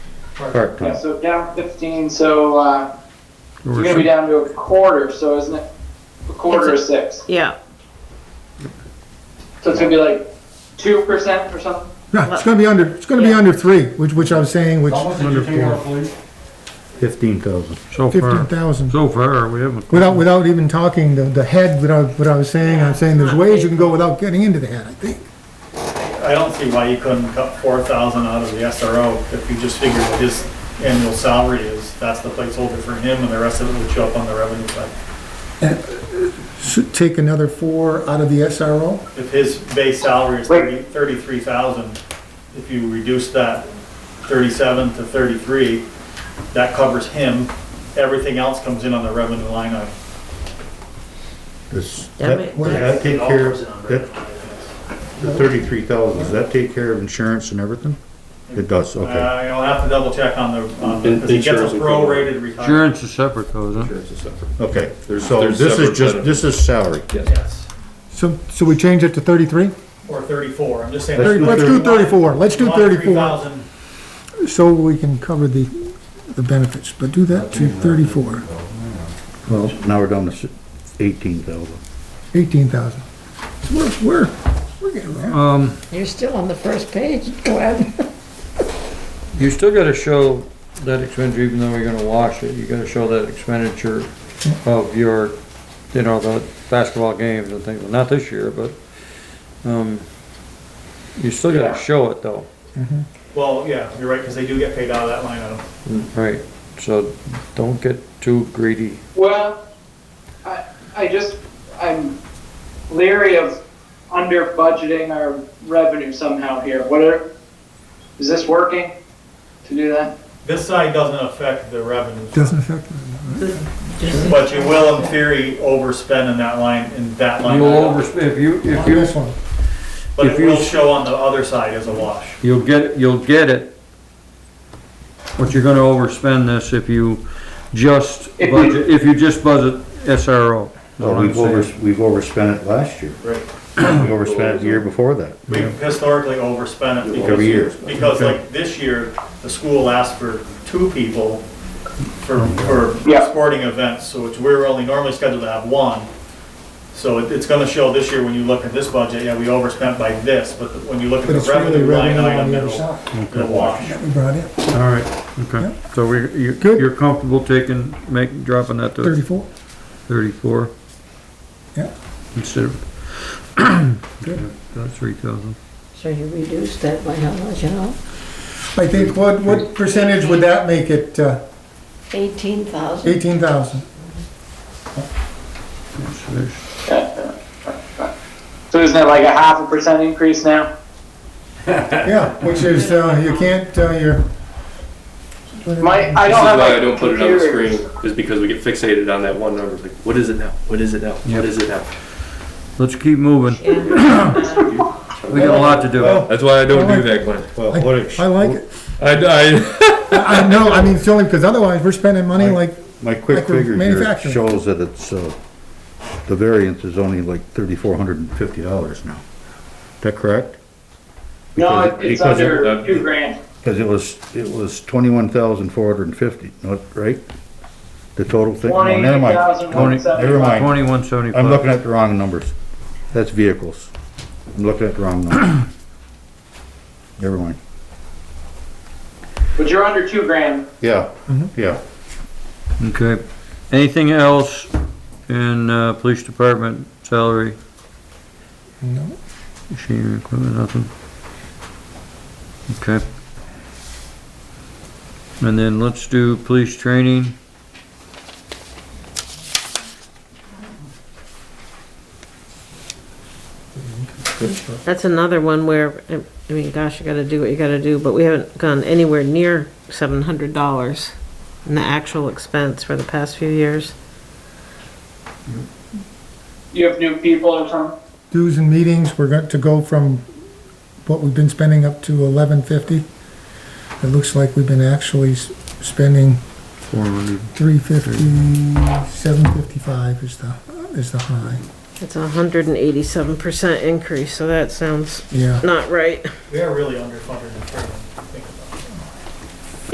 Correct. Yeah, so down fifteen, so, uh, you're gonna be down to a quarter, so isn't it a quarter of six? Yeah, So it's gonna be like two percent or something? No, it's gonna be under, it's gonna be Yeah. under three, which, which I was saying, which How much did you take out, please? Fifteen thousand. So fifteen far, thousand. so far, we haven't. Without, without even talking the, the head, without, what I was saying, I'm saying there's ways you can go without getting into the head, I think. I don't see why you couldn't cut four thousand out of the SRO if you just figured what his annual salary is. That's the placeholder for him and the rest of it would show up on the revenue side. Should take another four out of the SRO. If his base salary is Wait. thirty, thirty-three thousand, if you reduce that thirty-seven to thirty-three, that covers him. Everything else comes in on the revenue line item. Does Yeah, that, but- does that take care of, that, the thirty-three thousand, does that take care of insurance and everything? It does, Uh, okay. I'll have to double check on the, on, because he gets Insurance a would cover it. prorated retirement. Insurance is separate though, isn't it? Insurance is separate. Okay, There's- so there's this separate is just, benefits. this is salary. Yes, So, so we change it to thirty-three? or thirty-four, I'm just saying. Let's do Let's do thirty-four, let's do One thirty-four, 3,000. so we can cover the, the benefits, but do that to thirty-four, Well, now we're down to eighteen thousand. eighteen thousand. So we're, we're, we're getting there. Um, you're still on the first page, Glenn. you still gotta show that expenditure, even though you're gonna wash it, you gotta show that expenditure of your, you know, the basketball games and things, not this year, but, um, you still gotta show it though, Well, yeah, you're right, because they do get paid out of that line item. right? So don't get too greedy. Well, I, I just, I'm leery of under budgeting our revenue somehow here. What are, is this working to do that? This side doesn't affect the revenues, Doesn't affect me. but you will in theory overspend in that line, in that line. You'll item. overspend, if you, if you. This one. But if it you- will show on the other side as a wash. You'll get, you'll get it, but you're gonna overspend this if you just If we- budget, if you just budget SRO. is what Well, I'm we've over, saying. we've overspent it last year. Right. We overspent it the year before that. We've historically overspent it Over years. because, because Okay. like this year, the school asked for two people for, for Yeah. sporting events, so which we're only normally scheduled to have one. So it- it's gonna show this year when you look at this budget, yeah, we overspent by this, but when you look at But the it's really revenue line revenue on item, the other it'll, side it'll wash. that we brought in, All right, okay, so we, you, Good. you're comfortable taking, make, dropping that to thirty-four. thirty-four? Yeah. Instead of, that's three thousand. So you reduced that by how much, you know? I think, what, what percentage would that make it, uh, Eighteen thousand. eighteen thousand? So isn't it like a half a percent increase now? Yeah, which is, uh, you can't, uh, you're. My, I This don't is have why my I don't put it on the computer. screen, is because we get fixated on that one number. It's like, what is it now? What is it now? Yep. What is it now? Let's keep moving, Yeah. we got a lot to do. Well, That's why I don't do that, Glenn. Well, I- what it- I like it. I, I, I I know, I mean, it's only because otherwise we're spending money like, My quick Like we're figure here manufacturing. shows that it's, uh, the variance is only like thirty-four hundred and fifty dollars now. Is that correct? No, Because- it's because it- under two grand. Cause it was, it was twenty-one thousand four hundred and fifty, right? The total thing? No, never mind. 28,175. Never mind. Twenty-one I'm looking seventy-five, at the wrong numbers. That's vehicles. I'm looking at the wrong numbers. Never mind. But you're under two grand. Yeah, yeah. okay. Anything else in, uh, police department salary? no, Machinery, equipment, nothing. Okay. And then let's do police training. That's another one where, I I mean, gosh, you gotta do what you gotta do, but we haven't gone anywhere near seven hundred dollars in the actual expense for the past few years. You have new people or something? dues and meetings, we're going to go from what we've been spending up to eleven fifty. It looks like we've been actually s- spending Four hundred. three fifty, seven fifty-five is the, is the high, It's a hundred and eighty-seven percent increase, so that sounds yeah. not right. We are really underfunded in training.